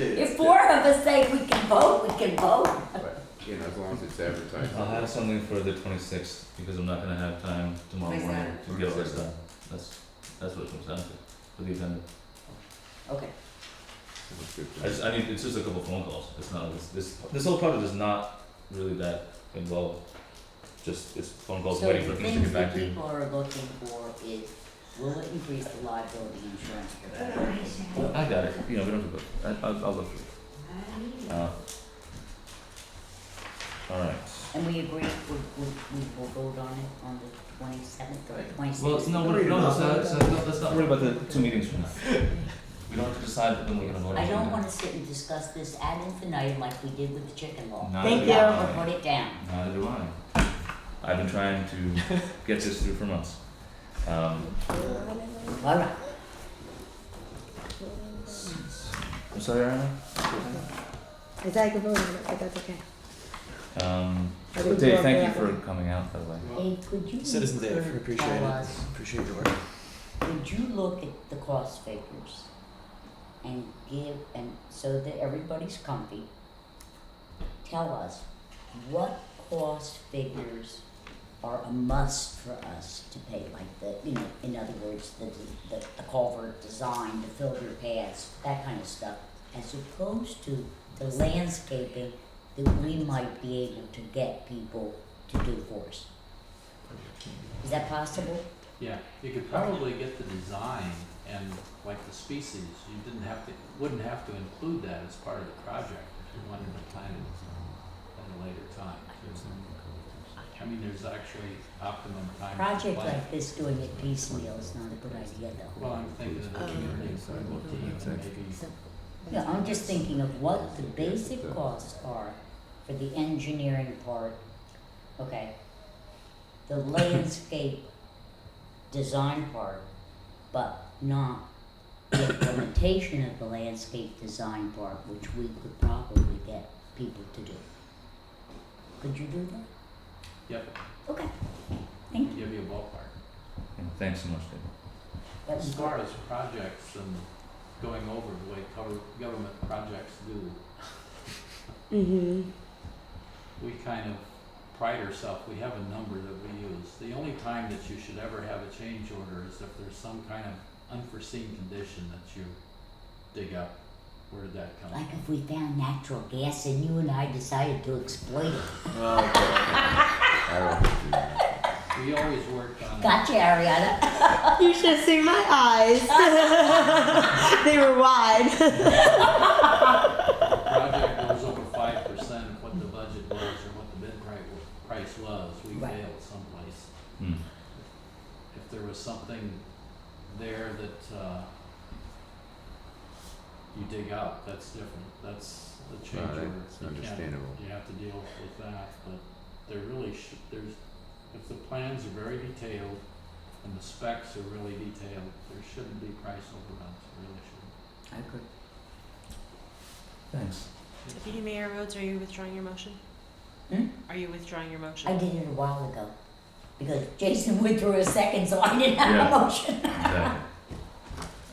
If four of us say we can vote, we can vote. But, you know, as long as it's advertised. I'll have something for the twenty-sixth because I'm not gonna have time tomorrow Why's morning that? to get all this 26th. done. That's, that's what it comes down to, for the agenda. Okay, That's good. I just, I need, it's just a couple phone calls, it's not, this, this, this whole project is not really that involved. Just, it's phone calls so the waiting for things to things get back that to you. people are looking for is, will it increase the liability insurance for that? I got it, you know, we don't have to, go- I, I'll, I'll look through it, uh. Alright, And we agree, we, we, we will vote on it on the twenty-seventh or twenty-sixth? well, it's no, we're- no, let's, not- let's, not- let's not worry about the two meetings from now. We don't have to decide when we're gonna vote on I don't it. wanna sit and discuss this ad infinitum like we did with the chicken law. Neither Thank do We I. have to put it down. Neither do I. I've been trying to get this through for months. Um, All right, I'm sorry, Ariana. I thought I could vote on it, but that's okay. Um, I didn't Dave, vote thank you that. for coming out, by the way. hey, could you? Citizen Dave, tell appreciate it. us Appreciate your work. Would you look at the cost figures and give, and so that everybody's comfy, tell us what cost figures are a must for us to pay, like the, you know, in other words, the, the, the culvert design, the filter pads, that kind of stuff, as opposed to the landscaping that we might be able to get people to do for us. Is that possible? Yeah, you could probably get the design and like the species, you didn't have to, wouldn't have to include that as part of the project if you wanted to plan it at a later time. I mean, there's actually optimum time to Project plan. like this, doing it piecemeal is not a good idea though. Well, I'm thinking of the Um, community cycle team, and maybe, Yeah, I'm just thinking of what the basic costs are for the engineering part, okay? The landscape design part, but not the implementation of the landscape design part, which we could probably get people to do. Could you do that? yep, Okay, thank you. give you a ballpark. And thanks so much, Dave. That was As far as projects and going over the way cover, government projects do, Mm-hmm. we kind of pride ourselves, we have a number that we use. The only time that you should ever have a change order is if there's some kind of unforeseen condition that you dig up. Where did that come Like from? if we found natural gas and you and I decided to exploit it. I don't think you- We always work on. Gotcha, Ariana. You should have seen my eyes. they were wide. the project goes over five percent of what the budget was or what the bid pri- price was, we Right. failed someplace. Hmm. If there was something there that, uh, you dig out, that's different, that's the change Right, order. it's You can't- understandable. You have to deal with that, but there really should, there's, if the plans are very detailed and the specs are really detailed, there shouldn't be price overruns, there really shouldn't. I agree. Thanks. Deputy Mayor Rhodes, are you withdrawing your motion? Hmm? Are you withdrawing your motion? I did it a while ago because Jason withdrew a second, so I didn't have Yeah. a motion. Exactly.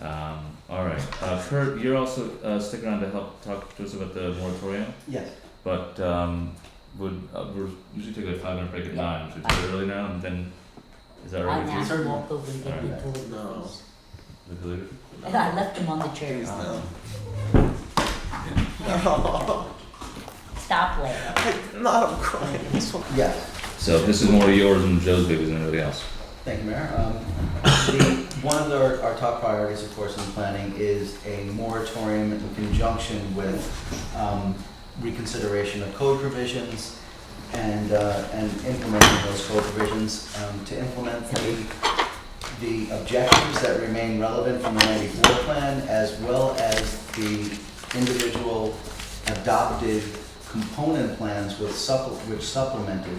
Um, all right. Uh, Kurt, you're also uh, sticking around to help talk to us about the moratorium, Yes. but um, would uh, we're usually take a five minute break at Yeah. nine, so it's early now, and then is that all I'm right with not you? Sir, walk over and get Alright. the tool, No. please. With the leader? And I left him on the chair. No. Stop laughing. Not I'm crying. This one. Yeah. So this is more yours and Joe's baby than anybody else. Thank you, Mayor. Um, the- One of our, our top priorities, of course, in planning is a moratorium in conjunction with um, reconsideration of code provisions and, uh, and implementing those code provisions um, to implement the, the objectives that remain relevant from the 94 plan as well as the individual adopted component plans with supple, which supplemented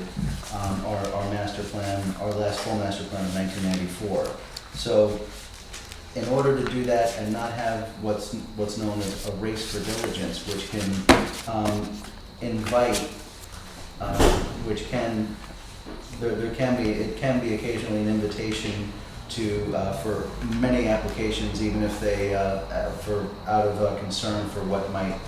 um, our, our master plan, our last full master plan of nineteen ninety-four. So in order to do that and not have what's, what's known as a race for diligence, which can, um, invite, uh, which can, there, there can be, it can be occasionally an invitation to, uh, for many applications, even if they, uh, uh, for, out of uh, concern for what might